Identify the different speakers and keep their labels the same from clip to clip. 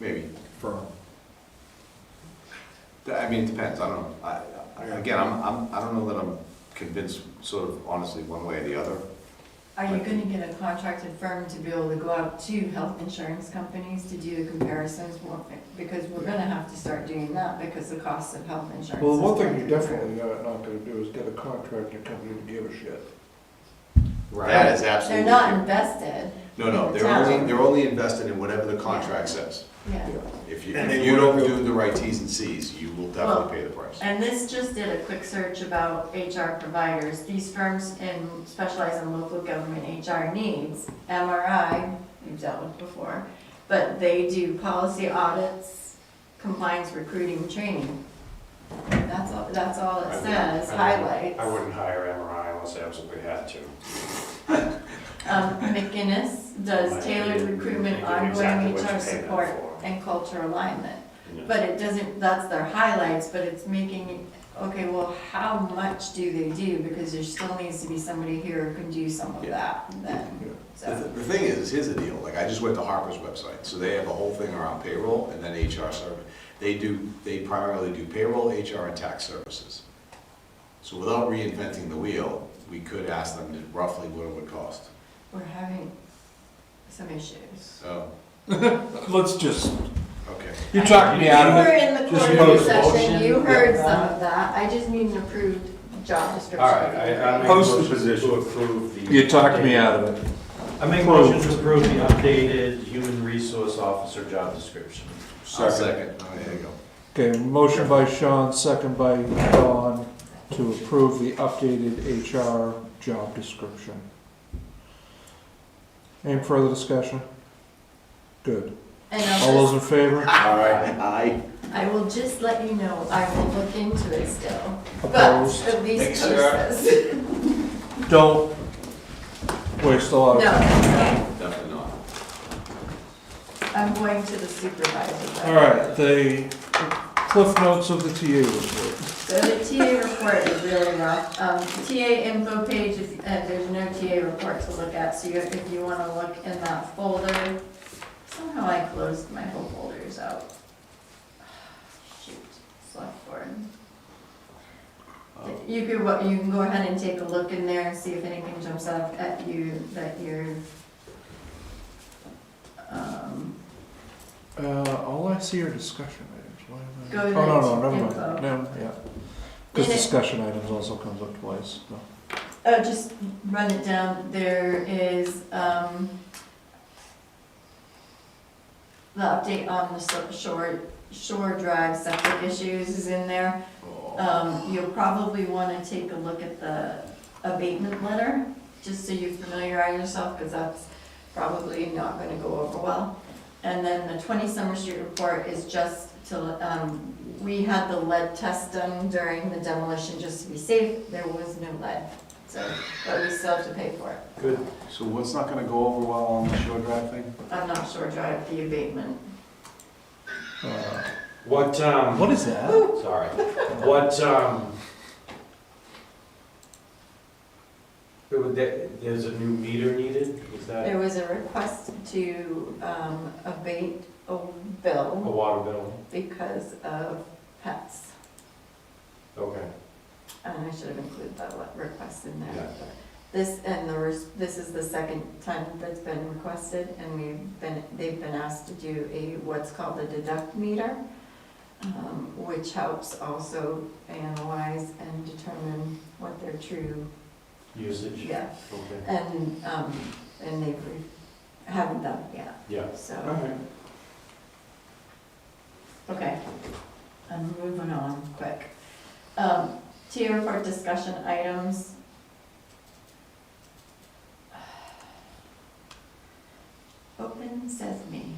Speaker 1: maybe.
Speaker 2: firm.
Speaker 1: D- I mean, it depends, I don't know. I- I- Again, I'm, I'm, I don't know that I'm convinced, sort of honestly, one way or the other.
Speaker 3: Are you gonna get a contracted firm to be able to go out to health insurance companies to do the comparisons? Well, Because we're gonna have to start doing that because the cost of health insurance.
Speaker 2: Well,
Speaker 3: is
Speaker 2: one thing
Speaker 3: going
Speaker 2: you're
Speaker 3: through the roof.
Speaker 2: definitely not not gonna do is get a contractor company to give a shit.
Speaker 1: That is absolutely.
Speaker 3: They're not invested,
Speaker 1: No, no, they're only, they're only invested in whatever the contract says.
Speaker 3: yeah.
Speaker 1: If you,
Speaker 2: And
Speaker 1: if
Speaker 2: they
Speaker 1: you don't
Speaker 2: will-
Speaker 1: do the right Ts and Cs, you will
Speaker 3: Well,
Speaker 1: definitely pay the price.
Speaker 3: And this just did a quick search about HR providers. These firms in, specialize in local government HR needs. MRI, we've dealt with before, but they do policy audits, compliance, recruiting, training. That's all, that's all
Speaker 4: I
Speaker 3: it
Speaker 4: would-
Speaker 3: says,
Speaker 4: I would-
Speaker 3: highlights.
Speaker 4: I wouldn't hire MRI unless I absolutely had to.
Speaker 3: Um, McGinnis does tailored recruitment, ongoing HR support, and culture alignment. But it doesn't, that's their highlights, but it's making, okay, well, how much do they do? Because there still needs to be somebody here who can do some of that
Speaker 2: Yeah.
Speaker 3: then,
Speaker 1: The th-
Speaker 3: so.
Speaker 1: the thing is, here's the deal, like, I just went to Harper's website, so they have a whole thing around payroll and then HR service. They do, they primarily do payroll, HR, and tax services. So without reinventing the wheel, we could ask them to roughly what it would cost.
Speaker 3: We're having some issues.
Speaker 1: Oh,
Speaker 2: Let's just.
Speaker 1: okay.
Speaker 2: You talked me out
Speaker 3: You
Speaker 2: of
Speaker 3: were
Speaker 2: it.
Speaker 3: in the
Speaker 2: Just
Speaker 3: quarterly
Speaker 2: post
Speaker 3: session,
Speaker 5: motion.
Speaker 3: you heard some of that, I just need an approved job description.
Speaker 4: All right, I, I make a
Speaker 2: Post the
Speaker 4: motion
Speaker 2: position.
Speaker 4: to approve the.
Speaker 2: You talked me out of it.
Speaker 5: I make a motion to approve the updated human resource officer job description.
Speaker 1: I'll second. Oh, there you go.
Speaker 2: Okay, motion by Sean, second by Dawn, to approve the updated HR job description. Any further discussion? Good.
Speaker 3: And
Speaker 2: All
Speaker 3: I'll
Speaker 2: those
Speaker 3: just,
Speaker 2: in favor?
Speaker 1: All right, aye.
Speaker 3: I will just let you know, I will look into it still, but
Speaker 2: Opposed?
Speaker 3: at least
Speaker 1: Thanks, Sarah.
Speaker 3: post this.
Speaker 2: Don't. We're still out of time.
Speaker 3: No,
Speaker 1: Definitely not.
Speaker 3: I'm going to the supervisor.
Speaker 2: All right, the cliff notes of the TA report.
Speaker 3: So the TA report is really rough. Um, TA info page, if, uh, there's no TA report to look at, so you, if you wanna look in that folder, somehow I closed my whole folders out. Shoot, select board. You could, wa- you can go ahead and take a look in there and see if anything jumps out at you that you're, um,
Speaker 2: Uh, all I see are discussion items. Why am I-
Speaker 3: Go to
Speaker 2: Oh, no, no, never
Speaker 3: info.
Speaker 2: mind. No, yeah. Because
Speaker 3: In it-
Speaker 2: discussion items also comes up twice, no.
Speaker 3: Oh, just run it down, there is, um, the update on the so- shore, shore drive septic issues is in there.
Speaker 1: Oh.
Speaker 3: Um, you'll probably wanna take a look at the abatement letter, just so you familiarize yourself, cause that's probably not gonna go over well. And then the twenty Summer Street report is just to, um, we had the lead test done during the demolition, just to be safe, there was no lead. So, but we still have to pay for it.
Speaker 4: Good.
Speaker 1: So what's not gonna go over well on the shore drive thing?
Speaker 3: I'm not sure, drive the abatement.
Speaker 2: Uh,
Speaker 4: What, um,
Speaker 2: What is that?
Speaker 4: sorry, what, um, there was- there- there's a new meter needed, is that
Speaker 3: There was a request to um, abate a
Speaker 4: a
Speaker 3: bill
Speaker 4: water bill?
Speaker 3: because of pets.
Speaker 4: Okay,
Speaker 3: And I should have included that le- request in
Speaker 4: Yeah.
Speaker 3: there. This, and the, res- this is the second time that's been requested, and we've been, they've been asked to do a, what's called a deduct meter, um, which helps also analyze and determine what their true,
Speaker 4: usage?
Speaker 3: yeah,
Speaker 4: Okay,
Speaker 3: And, um, and they re- haven't done it yet,
Speaker 4: yeah. All
Speaker 3: so,
Speaker 4: right.
Speaker 3: okay. I'm moving on quick. Um, TA report discussion items. Open sesame.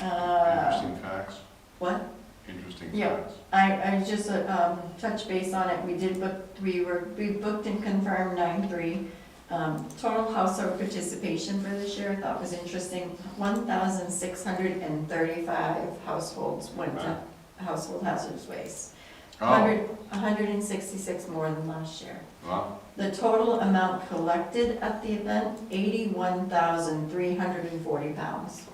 Speaker 3: Uh,
Speaker 1: Interesting facts,
Speaker 3: what?
Speaker 1: interesting
Speaker 3: Uh, Yeah.
Speaker 1: facts.
Speaker 3: I, I just, uh, um, touch base on it, we did book, we were, we booked and confirmed nine three. Um, total household participation for this year, I thought was interesting, one thousand six hundred and thirty-five households went to household hazardous waste.
Speaker 1: Oh,
Speaker 3: Hundred, hundred and sixty-six more than last year.
Speaker 1: wow,
Speaker 3: The total amount collected at the event, eighty-one thousand three hundred and forty pounds.